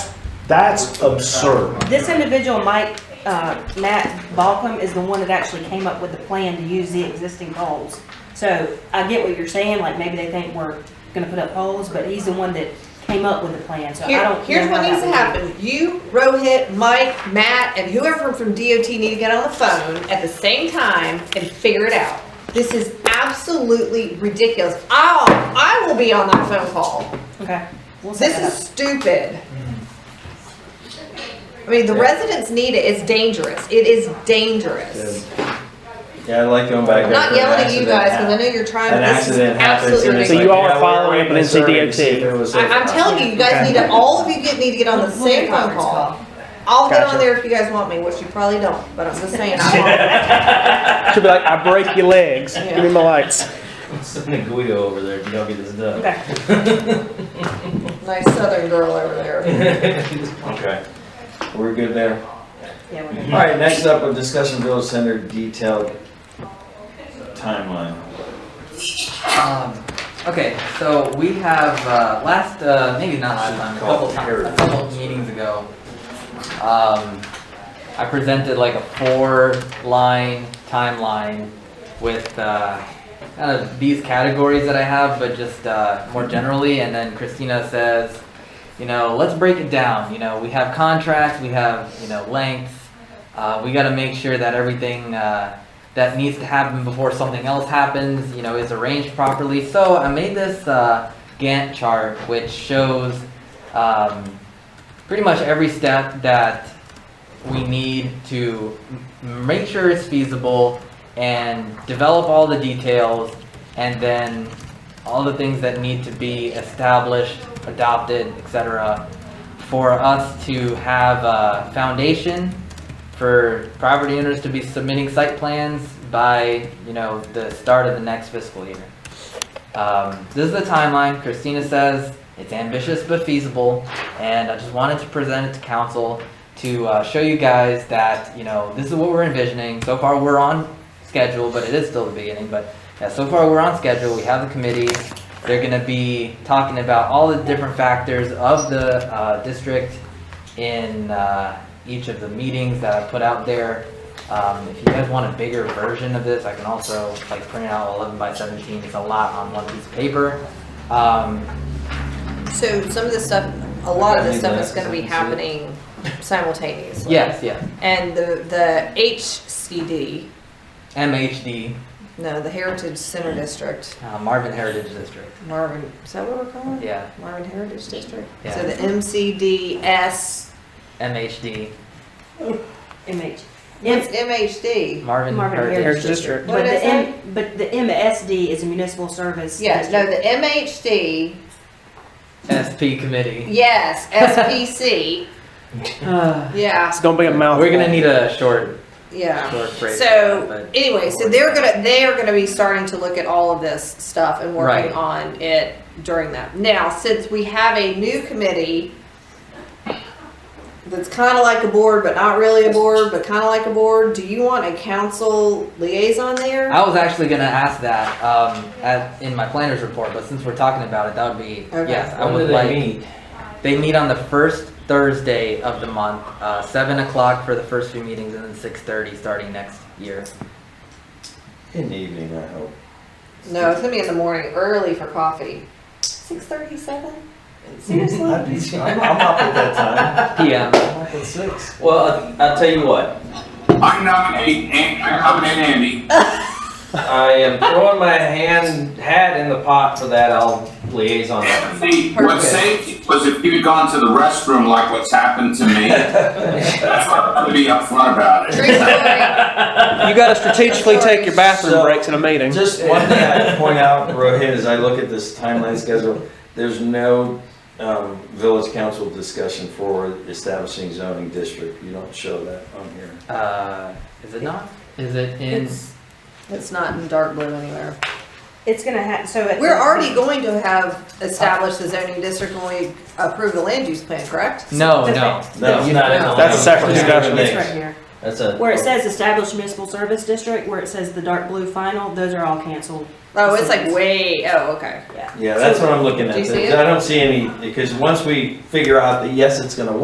That's absurd. This individual, Mike, uh, Matt Balcom, is the one that actually came up with the plan to use the existing poles. So I get what you're saying, like maybe they think we're gonna put up poles, but he's the one that came up with the plan, so I Here, don't. here's know how what that needs to would work. happen. You, Rohit, Mike, Matt, and whoever from DOT need to get on the phone at the same time and figure it out. This is absolutely ridiculous. I'll, I will be on that phone call. Okay. we'll set This that is up. stupid. I mean, the residents need it. It's dangerous. It is dangerous. Yeah, I like going back there. I'm not for an yelling at you accident. guys, cause I know you're trying, An but this is accident happens. absolutely and it's ridiculous. like, So you all yeah, are we're following running up on a survey NCDOT. to see if it was I, safe or I'm not. telling you, you guys need to, all of you get, need to get on the We'll make same phone conference call. I'll get on Gotcha. there if you guys want me, which you probably don't, but I'm just saying, I She'll be like, I break your legs. Give me my lights. Send a Guido over there if you don't get this done. Okay, want, nice southern girl over there. Okay. We're good there. yeah, we're All good. right, next up, a discussion village center detailed timeline. Um, okay, so we have, uh, last, uh, maybe not last time, a couple times, a couple meetings ago, um, I presented like a four-line timeline with, uh, kind of these categories that I have, but just, uh, more generally, and then Christina says, you know, let's break it down, you know, we have contracts, we have, you know, lengths, uh, we gotta make sure that everything, uh, that needs to happen before something else happens, you know, is arranged properly. So I made this uh, Gantt chart, which shows um, pretty much every step that we need to m- make sure it's feasible and develop all the details and then all the things that need to be established, adopted, etc. for us to have a foundation for property owners to be submitting site plans by, you know, the start of the next fiscal year. Um, this is the timeline. Christina says it's ambitious but feasible, and I just wanted to present it to council to uh, show you guys that, you know, this is what we're envisioning. So far, we're on schedule, but it is still the beginning. But yeah, so far, we're on schedule. We have the committee. They're going to be talking about all the different factors of the uh, district in uh, each of the meetings that I put out there. Um, if you guys want a bigger version of this, I can also like print out 11 by 17. It's a lot on one piece of paper. Um, So some of this stuff, a lot of this stuff is gonna be happening simultaneously. yes, yes. And the, the HCD, MHD, no, the Heritage Center District, uh, Marvin Heritage District. Marvin, is that what we're calling it? Yeah, Marvin Heritage District? Yeah. So the MCDS, MHD, MH. it's MHD. Marvin, Marvin Heritage. Heritage District. What But did I the say? M, but the MSD is a municipal service. Yeah, no, district. the MHD, SP Committee. yes, SPC, yeah, Uh, It's gonna be a mouthful. We're gonna need a short, yeah. short phrase. but- So, anyway, so they're gonna, they are gonna be starting to look at all of this stuff and working Right. on it during that. Now, since we have a new committee that's kinda like a board, but not really a board, but kinda like a board, do you want a council liaison there? I was actually gonna ask that um, at, in my planner's report, but since we're talking about it, that would be Okay. yes. I When do would they like. meet? They meet on the first Thursday of the month, uh, seven o'clock for the first few meetings, and then six thirty starting next year. In the evening, I hope. No, it's gonna be in the morning, early for coffee. Six thirty-seven? Seriously? I'd be- I'm I'm up at that time. PM. I'm up at six. Well, I'll tell you what. I nominate Andy, I'm coming in Andy. I am throwing my hand hat in the pot for that. I'll liaison. with you. See, what's safe was if you'd gone to the restroom like what's happened to me. That's why I'm gonna be upfront about it. Drink story. You gotta strategically take your bathroom So- breaks in a meeting. Just one thing I'd point out, Rohit, as I look at this timeline schedule, there's no um, village council discussion for establishing zoning district. You don't show that on here. Uh, is it not? Is it in? It's, it's not in dark blue anywhere. It's gonna ha, so. at We're the- already going to have established the zoning district when we approve the land use plan, correct? Oh, No, That's no. No, it's not in the- That's a separate discussion. It's right here. That's a. Where it says established municipal service district, where it says the dark blue final, those are all canceled. Oh, it's like way, oh, okay. Yeah. Yeah, that's what I'm looking at. Do you see it? I don't see any, because once we figure out that, yes, it's gonna